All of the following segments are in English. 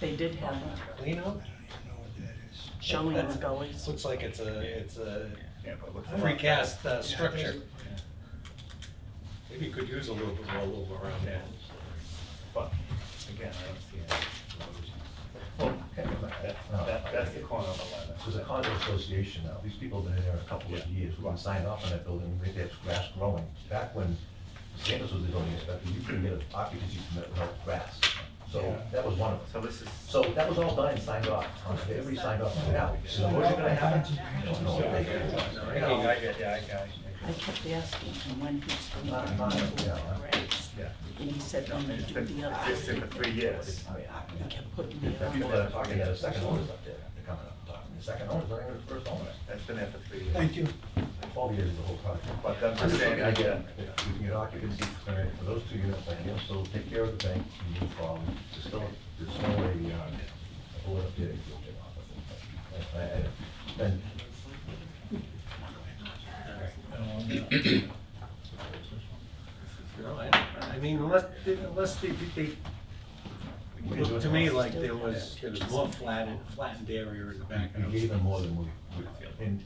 They did have a Lino? showing of gullies. Looks like it's a, it's a Yeah, but look. precast uh, structure. Maybe you could use a little bit more room around that. But, again, I don't see any. Well, that- that, that's the corner of eleven. There's a condo association now, these people have been in there a couple of years, we can sign off on that building, they have grass growing. Back when Sanders was the building inspector, you couldn't get an occupancy permit without grass, so that was one of them. So this is. So that was all done and signed off, on it. everybody signed off on it now, so what's gonna happen? I don't know. They- No, I get, yeah, I got it. I kept asking him when he's going to Not- not- remove yeah, the right. grass. Yeah. And he said, "Don't It's do been the other existing for thing." three years. I mean, I He can, kept putting it the people that are on. talking, the second owners up there, they're coming up and talking, the second owners, not even the first owner. That's been there for three years. Thank you. Twelve years is the whole project. But I'm just saying, again, Again, If we can get occupancy permit for those two units, I can still take care of the bank and move forward. There's still, there's still a, uh, a bullet up there. I- I- And, You know, I- I mean, unless, unless they, they, we can do looked it to me all. like there was, there was more flattened, flattened area in the back. of We gave the them more than we, we- in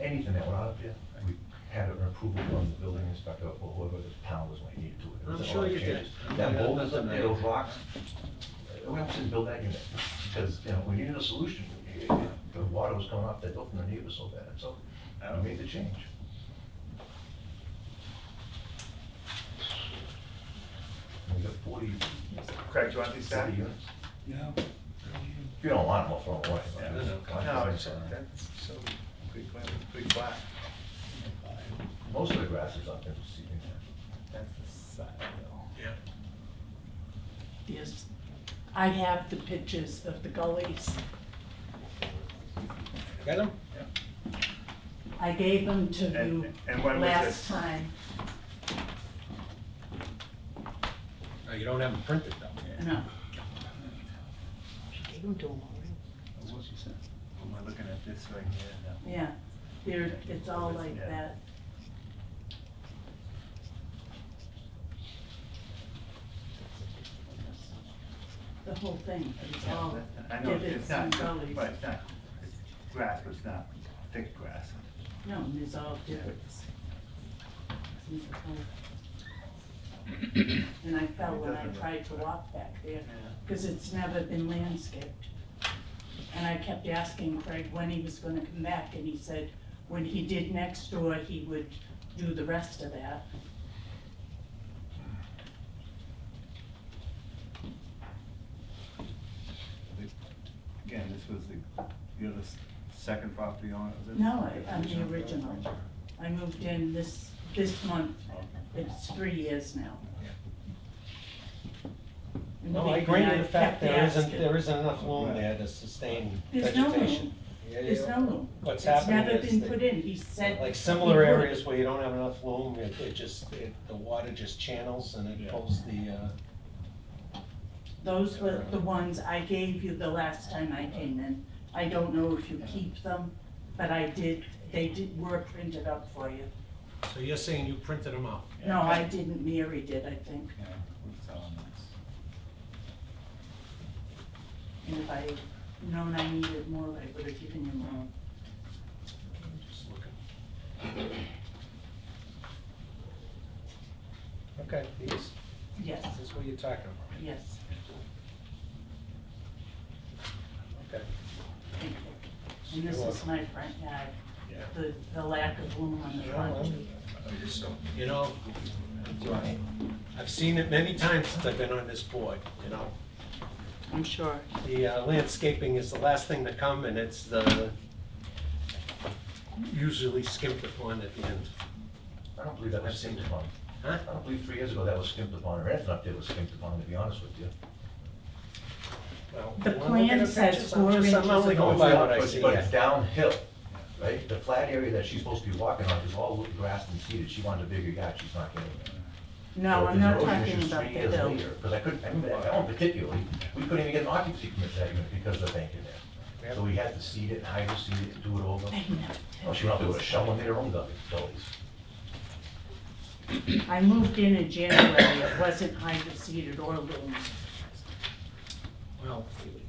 anything that went out up there, we had an approval from the building inspector or whoever the town was when needed to. it. It I'm wasn't sure all you did. changes. That Yeah, boulders up nothing there, there. those rocks, uh, we have to build that unit, because, you know, we needed a solution. It- it- The water was coming off that roof and the neighbors so bad, so I made the change. We got forty, Craig, do you want these back? forty units. No. If you don't want them, I'll throw them away. but- Yeah, No, it's, that's so, pretty, flat- pretty flat. Most of the grass is up there, just seeing That's the side though. Yeah. Yes. I have the pictures of the gullies. Got them? I gave them to And- you and when was last this? time. No, you don't have them printed though. No. I gave them to him already. We're looking at this right here now. Yeah, there, it's all like that. The whole thing, it's all I know, divots it's not, and right, gullies. it's not, it's grass, but it's not thick grass. No, it's all divots. And I fell when I tried to walk back there, because it's never been landscaped. And I kept asking Craig when he was gonna come back, and he said when he did next door, he would do the rest of that. Again, this was the, you're the s- second property owner, is it? No, I- I'm the original. I moved in this, this month, it's three years now. And No, I believe agree me, with the kept fact there isn't, asking. there isn't enough room there to sustain There's no vegetation. room. Yeah, There's yeah. no room. What's happening is. It's never been that- put in, he said. Like similar he would. areas where you don't have enough loom, it, it just, it, the water just channels and it Yeah. pulls the, uh, Those were the ones I gave you the last time I came in. I don't know if you keep them, but I did, they did, were printed up for you. so you're saying you printed them out? No, I didn't, Mary did, I think. Yeah, we're selling this. And if I had known I needed more, I would have given you more. I'm just looking. Okay, these, Yes, this is what you're talking about, yes, okay. thank you. And this is my front yard, Yeah. the, the lack of room on the front. You know, I've seen it many times since I've been on this board, you know. I'm sure. The uh, landscaping is the last thing to come and it's the, usually skimped upon at the end, I don't believe that was skimped upon. huh? I don't believe three years ago that was skimped upon, or anything up there was skimped upon, to be honest with you. Well, The when I look at plan the says pictures, four I'm just- inches I'm only of going by what I see. But it's downhill, right? The flat area that she's supposed to be walking on is all grass and seeded. She wanted a bigger yard, she's not getting it. No, So if I'm not there's erosion talking issues about three the years hill. later, Because I couldn't, I remember that one particularly, we couldn't even get an occupancy permit for that unit because of the bank in there. So we had to seed it, hide the seed it, do it over. I Oh, she went up there with a shovel and made her own gully- gullies. know. I moved in in January, it wasn't hydro seeded or loom. Well, well,